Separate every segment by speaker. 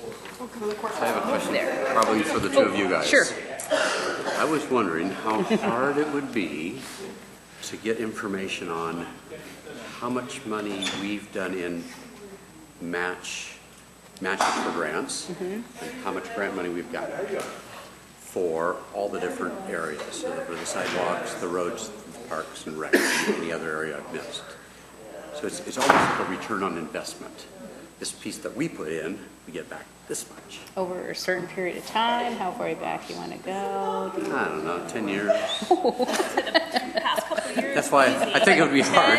Speaker 1: I have a question, probably for the two of you guys.
Speaker 2: Sure.
Speaker 1: I was wondering how hard it would be to get information on how much money we've done in match, matches for grants, and how much grant money we've gotten for all the different areas, so the- for the sidewalks, the roads, the parks and rec, and any other area I've missed. So it's, it's almost like a return on investment. This piece that we put in, we get back this much.
Speaker 2: Over a certain period of time, how far back you want to go.
Speaker 1: I don't know, 10 years.
Speaker 3: past couple years.
Speaker 1: That's why I I think it would be hard.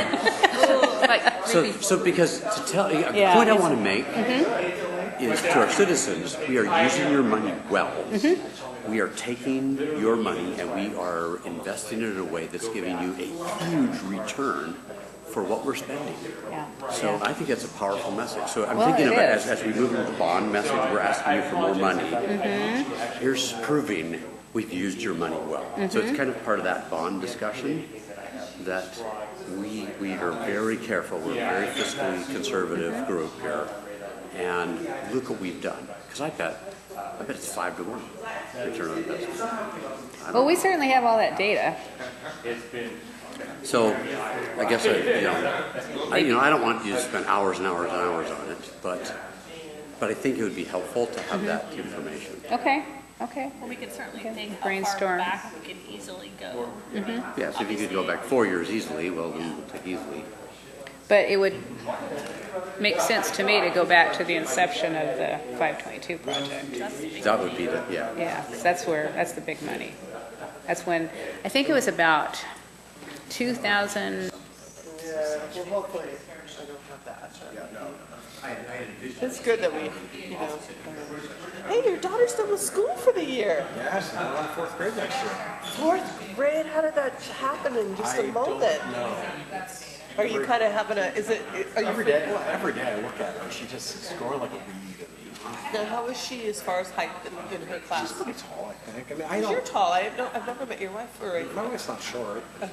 Speaker 3: Like,
Speaker 1: So, so because to tell, a
Speaker 2: Yeah,
Speaker 1: point I
Speaker 2: it's-
Speaker 1: want to make is to our citizens, we are using your money well. We are taking your money and we are investing it in a way that's giving you a huge return for what we're spending.
Speaker 2: Yeah.
Speaker 1: So I think that's a powerful message. So I'm
Speaker 2: Well,
Speaker 1: thinking
Speaker 2: it
Speaker 1: of it as,
Speaker 2: is.
Speaker 1: as we move into the bond message, we're asking you for more money.
Speaker 2: Mm-hmm.
Speaker 1: Here's proving we've used your money well. So
Speaker 2: Mm-hmm.
Speaker 1: it's kind of part of that bond discussion that we, we are very careful, we're a very fiscally conservative group here. And look what we've done. Because I bet, I bet it's five to one return on investment.
Speaker 2: Well, we certainly have all that data.
Speaker 1: So I guess I, you know, I, you know, I don't want you to spend hours and hours and hours on it, but, but I think it would be helpful to have that information.
Speaker 2: Okay, okay.
Speaker 3: we could certainly
Speaker 2: Okay,
Speaker 3: think how far
Speaker 2: brainstorm.
Speaker 3: back we can easily go.
Speaker 1: Yeah, so if you could go back four years easily, well, then we'll take easily.
Speaker 2: But it would make sense to me to go back to the inception of the 522 project.
Speaker 3: That's the big
Speaker 1: That would be the, yeah.
Speaker 2: Yeah, 'cause that's where, that's the big money. That's when, I think it was about 2000,
Speaker 4: Well, hopefully, I don't have that. It's good that we, you know. Hey, your daughter's done with school for the year.
Speaker 5: Yes, I'm on fourth grade next year.
Speaker 4: Fourth grade, how did that happen in just a moment? Are you kind of having a, is it, are you?
Speaker 5: Every day, every day I look at her, she just is growing like a weed. I mean,
Speaker 4: Now, how is she as far as height in, in her class?
Speaker 5: Pretty tall, I think. I mean, I
Speaker 4: You're
Speaker 5: don't,
Speaker 4: tall, I've no, I've never met your wife or a.
Speaker 5: my wife's not short.
Speaker 4: so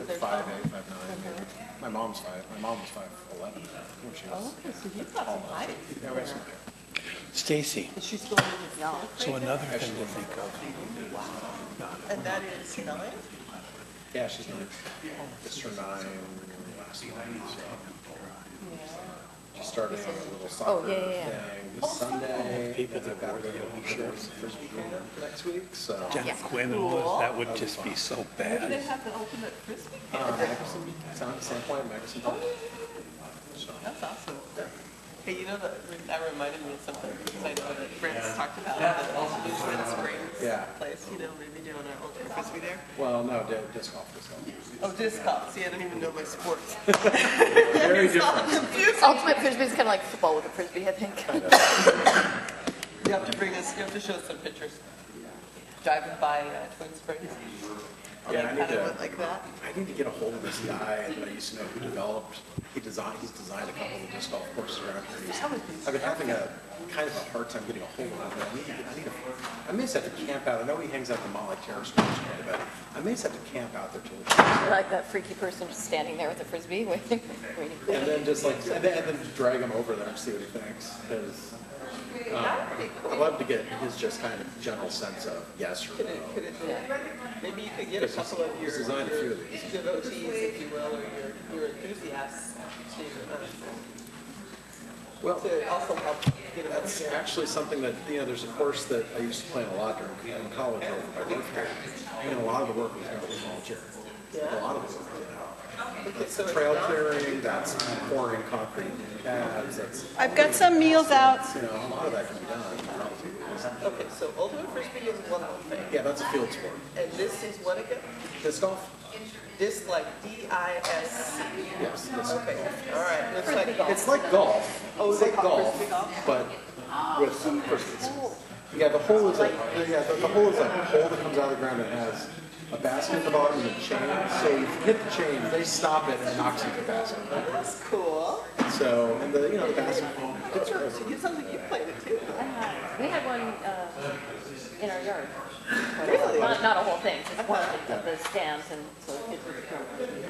Speaker 4: they're tall.
Speaker 5: Five eight, five nine. maybe. My mom's five, my mom was five eleven when she was.
Speaker 4: Okay, so you've got some height.
Speaker 5: Yeah, we have some-
Speaker 6: Stacy,
Speaker 4: Is she still in the yellow?
Speaker 6: so another thing to think of,
Speaker 4: And that is nine?
Speaker 5: Yeah, she's nine. It's her nine last nine, so. She started on a little soccer
Speaker 2: oh, yeah, yeah, yeah.
Speaker 5: thing this Sunday. People that got rid of shorts for next week, so.
Speaker 6: Jeff Quinn and all this, that would just be so bad.
Speaker 4: They have the ultimate frisbee.
Speaker 5: Uh, Magnuson, Sound, Sound Point, Magnuson Park.
Speaker 4: That's awesome. Hey, you know, that, that reminded me of something, because I know that Brent's talked about, the Twin
Speaker 5: Yeah.
Speaker 4: Springs place, you know, maybe doing our ultra frisbee there.
Speaker 5: Well, no, di- disc golf is all.
Speaker 4: Oh, disc golf, see, I don't even know my sports.
Speaker 5: Very different.
Speaker 7: Ultimate frisbee is kind of like football with a frisbee, I think.
Speaker 4: You have to bring us, you have to show us some pictures. Driving by uh, Twin Springs.
Speaker 5: Yeah, I need
Speaker 4: Kind of
Speaker 5: to,
Speaker 4: went like that.
Speaker 5: I need to get a hold of this guy that I used to know who developed, he designed, he's designed a couple of disc golf courses around here. He's- I've been having a, kind of a hard time getting a hold of him. I need, to- I need to, I may just have to camp out. I know he hangs out at the Molly Terrace Sports Club, but I may just have to camp out there till.
Speaker 7: Like that freaky person just standing there with a frisbee waiting, waiting.
Speaker 5: And then just like, and then, and then drag him over there and see what he thinks, 'cause, um, I'd love to get his just kind of general sense of yes or no.
Speaker 4: Could it, maybe you could get a
Speaker 5: This is-
Speaker 4: couple of your
Speaker 5: this is on a few
Speaker 4: your
Speaker 5: of these.
Speaker 4: devotees, if you will, or your, your enthusiasts to, um,
Speaker 5: Well,
Speaker 4: to also help get them.
Speaker 5: that's actually something that, you know, there's a course that I used to play a lot during, in college, over my work here. And a lot of the work was done with volunteer. A lot of the work, you know. That's the trail clearing, that's pouring concrete pads, that's,
Speaker 4: I've got some meals out.
Speaker 5: you know, a lot of that can be done.
Speaker 4: Okay, so ultimate frisbee is one whole thing,
Speaker 5: Yeah, that's a field sport.
Speaker 4: and this is what again?
Speaker 5: Disc golf?
Speaker 4: This like D I S.
Speaker 5: Yes, disc golf.
Speaker 4: Okay, all right. Looks like
Speaker 5: It's like golf.
Speaker 4: Oh,
Speaker 5: it's
Speaker 4: they
Speaker 5: like
Speaker 4: call it
Speaker 5: golf,
Speaker 4: frisbee golf?
Speaker 5: but with some frisbees. Yeah, the hole is like yeah, the, the hole is like a hole that comes out of the ground and has a basket at the bottom and a chain. So if you hit the chain, they stop it and it knocks you to the basket.
Speaker 4: That's cool.
Speaker 5: So and the you know the basket. It's
Speaker 4: So you sounds like you played it too.
Speaker 7: We had one uh, in our yard.
Speaker 4: Really?
Speaker 7: Not, not a whole thing, just one of the- of the stands and so kids would come. and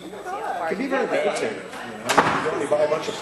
Speaker 7: see how far
Speaker 5: It can be
Speaker 7: you could
Speaker 5: very
Speaker 7: go.
Speaker 5: meditative. You know? Go and buy a bunch of